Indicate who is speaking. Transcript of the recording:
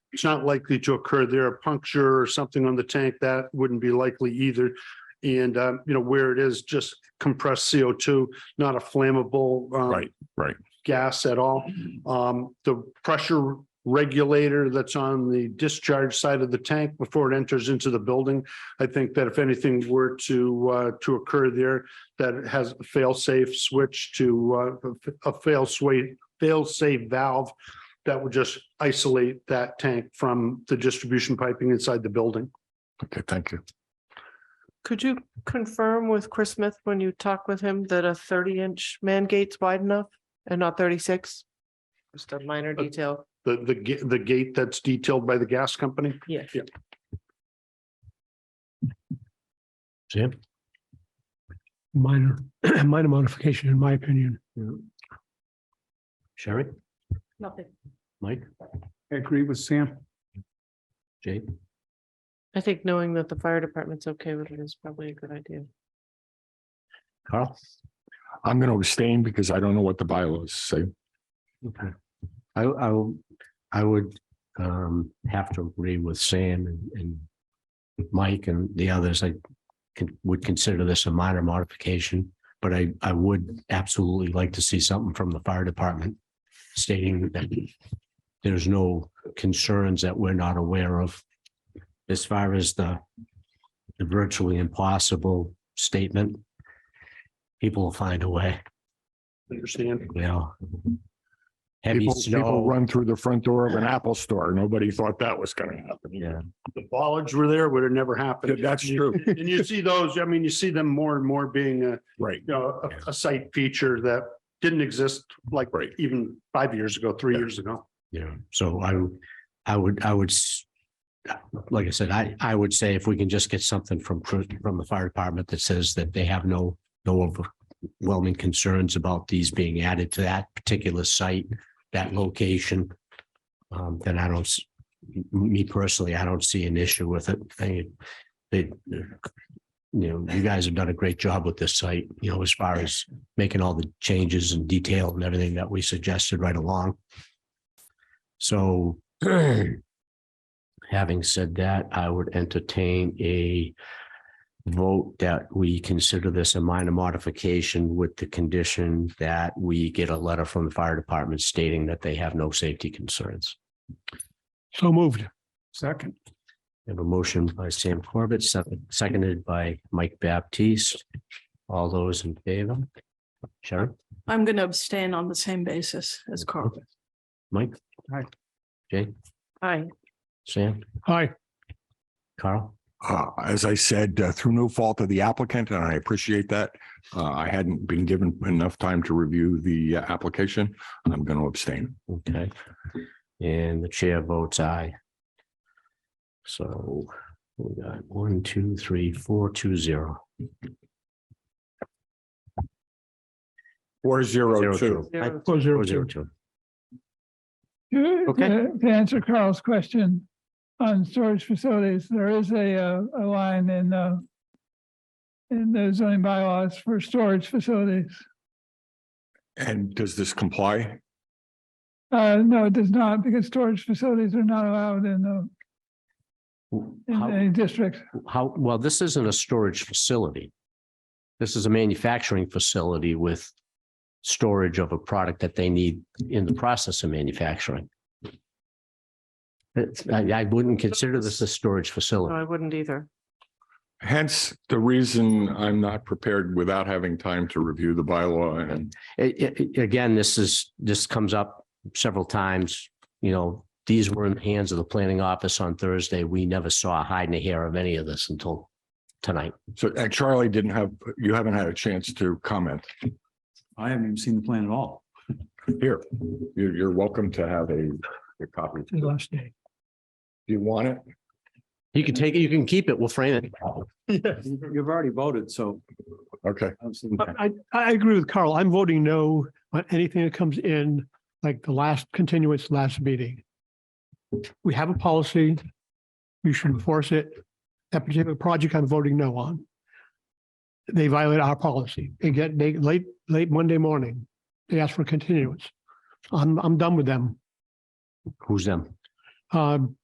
Speaker 1: It's not likely to occur there, a puncture or something on the tank, that wouldn't be likely either. And, um, you know, where it is just compressed CO2, not a flammable, um,
Speaker 2: Right, right.
Speaker 1: gas at all. Um, the pressure regulator that's on the discharge side of the tank before it enters into the building. I think that if anything were to, uh, to occur there, that it has a fail-safe switch to, uh, a fail-safe, fail-safe valve that would just isolate that tank from the distribution piping inside the building.
Speaker 2: Okay, thank you.
Speaker 3: Could you confirm with Chris Smith when you talk with him that a thirty inch man gate's wide enough and not thirty six? Just a minor
Speaker 1: Uh,
Speaker 3: detail.
Speaker 1: The, the, ga- the gate that's detailed by the gas company.
Speaker 3: Yeah.
Speaker 2: Jim?
Speaker 4: minor, minor modification, in my opinion.
Speaker 2: Sherry?
Speaker 3: Nothing.
Speaker 2: Mike?
Speaker 4: I agree with Sam.
Speaker 2: Jade?
Speaker 3: I think knowing that the fire department's okay with it is probably a good idea.
Speaker 2: Carl? I'm going to abstain because I don't know what the bylaws say.
Speaker 5: Okay. I, I, will- I would um, have to agree with Sam and, and Mike and the others. I can, would consider this a minor modification, but I, I would absolutely like to see something from the fire department stating that there's no concerns that we're not aware of. As far as the the virtually impossible statement, people will find a way,
Speaker 1: Understand?
Speaker 5: you know. Heavy
Speaker 2: People, people
Speaker 5: snow.
Speaker 2: run through the front door of an Apple store. Nobody thought that was going to happen.
Speaker 5: Yeah,
Speaker 1: The bollards were there, would have never
Speaker 2: Yeah,
Speaker 1: happened.
Speaker 2: That's true,
Speaker 1: And you see those, I mean, you see them more and more being a,
Speaker 2: right.
Speaker 1: you know, a, a site feature that didn't exist like
Speaker 2: Right.
Speaker 1: even five years ago, three
Speaker 2: Yeah.
Speaker 1: years ago.
Speaker 5: yeah, so I, would- I would, I would, s- like I said, I, I would say if we can just get something from, Cru- from the fire department that says that they have no, no overwhelming concerns about these being added to that particular site, that location, um, then I don't, s- m- me personally, I don't see an issue with it. I, they, you know, you guys have done a great job with this site, you know, as far as making all the changes and detail and everything that we suggested right along. So having said that, I would entertain a vote that we consider this a minor modification with the condition that we get a letter from the fire department stating that they have no safety concerns.
Speaker 4: So moved. Second.
Speaker 5: We have a motion by Sam Corbett, sec- seconded by Mike Baptiste. All those in favor? Sharon,
Speaker 6: I'm going to abstain on the same basis as Carl.
Speaker 5: Mike?
Speaker 4: Aye.
Speaker 5: Jay,
Speaker 3: Hi,
Speaker 5: Sam,
Speaker 4: Hi,
Speaker 5: Carl?
Speaker 2: Uh, as I said, uh, through no fault of the applicant, and I appreciate that. Uh, I hadn't been given enough time to review the uh, application. I'm going to abstain.
Speaker 5: Okay. And the chair votes aye. So we got one, two, three, four, two, zero.
Speaker 2: Four zero
Speaker 5: Zero,
Speaker 2: two.
Speaker 5: two. I-
Speaker 4: four zero
Speaker 5: Four, zero,
Speaker 4: two.
Speaker 7: To,
Speaker 5: two. Okay.
Speaker 7: to- to answer Carl's question on storage facilities, there is a, uh, a line in, uh, in the zoning bylaws for storage facilities.
Speaker 2: And does this comply?
Speaker 7: Uh, no, it does not, because storage facilities are not allowed in the, in
Speaker 5: How,
Speaker 7: any district.
Speaker 5: how, well, this isn't a storage facility. This is a manufacturing facility with storage of a product that they need in the process of manufacturing. It's- I, I wouldn't consider this a storage
Speaker 3: no,
Speaker 5: facility.
Speaker 3: I wouldn't either.
Speaker 2: Hence, the reason I'm not prepared without having time to review the bylaw and
Speaker 5: It, it, again, this is, this comes up several times, you know, these were in the hands of the planning office on Thursday. We never saw a hide and a hair of any of this until tonight.
Speaker 2: so, and Charlie didn't have, you haven't had a chance to comment
Speaker 8: I haven't even seen the plan at all.
Speaker 2: here. You're, you're welcome to have a, a copy.
Speaker 4: His last day.
Speaker 2: Do you want it?
Speaker 5: You can take it, you can keep it, we'll frame it.
Speaker 8: You've already voted, so.
Speaker 2: Okay.
Speaker 8: I was thinking-
Speaker 4: But I, I agree with Carl. I'm voting no on anything that comes in, like the last continuance, last meeting. We have a policy. We should enforce it. That particular project I'm voting no on. They violate our policy. They get, they, late, late Monday morning, they ask for continuance. I'm, I'm done with them.
Speaker 5: Who's them?
Speaker 4: Um,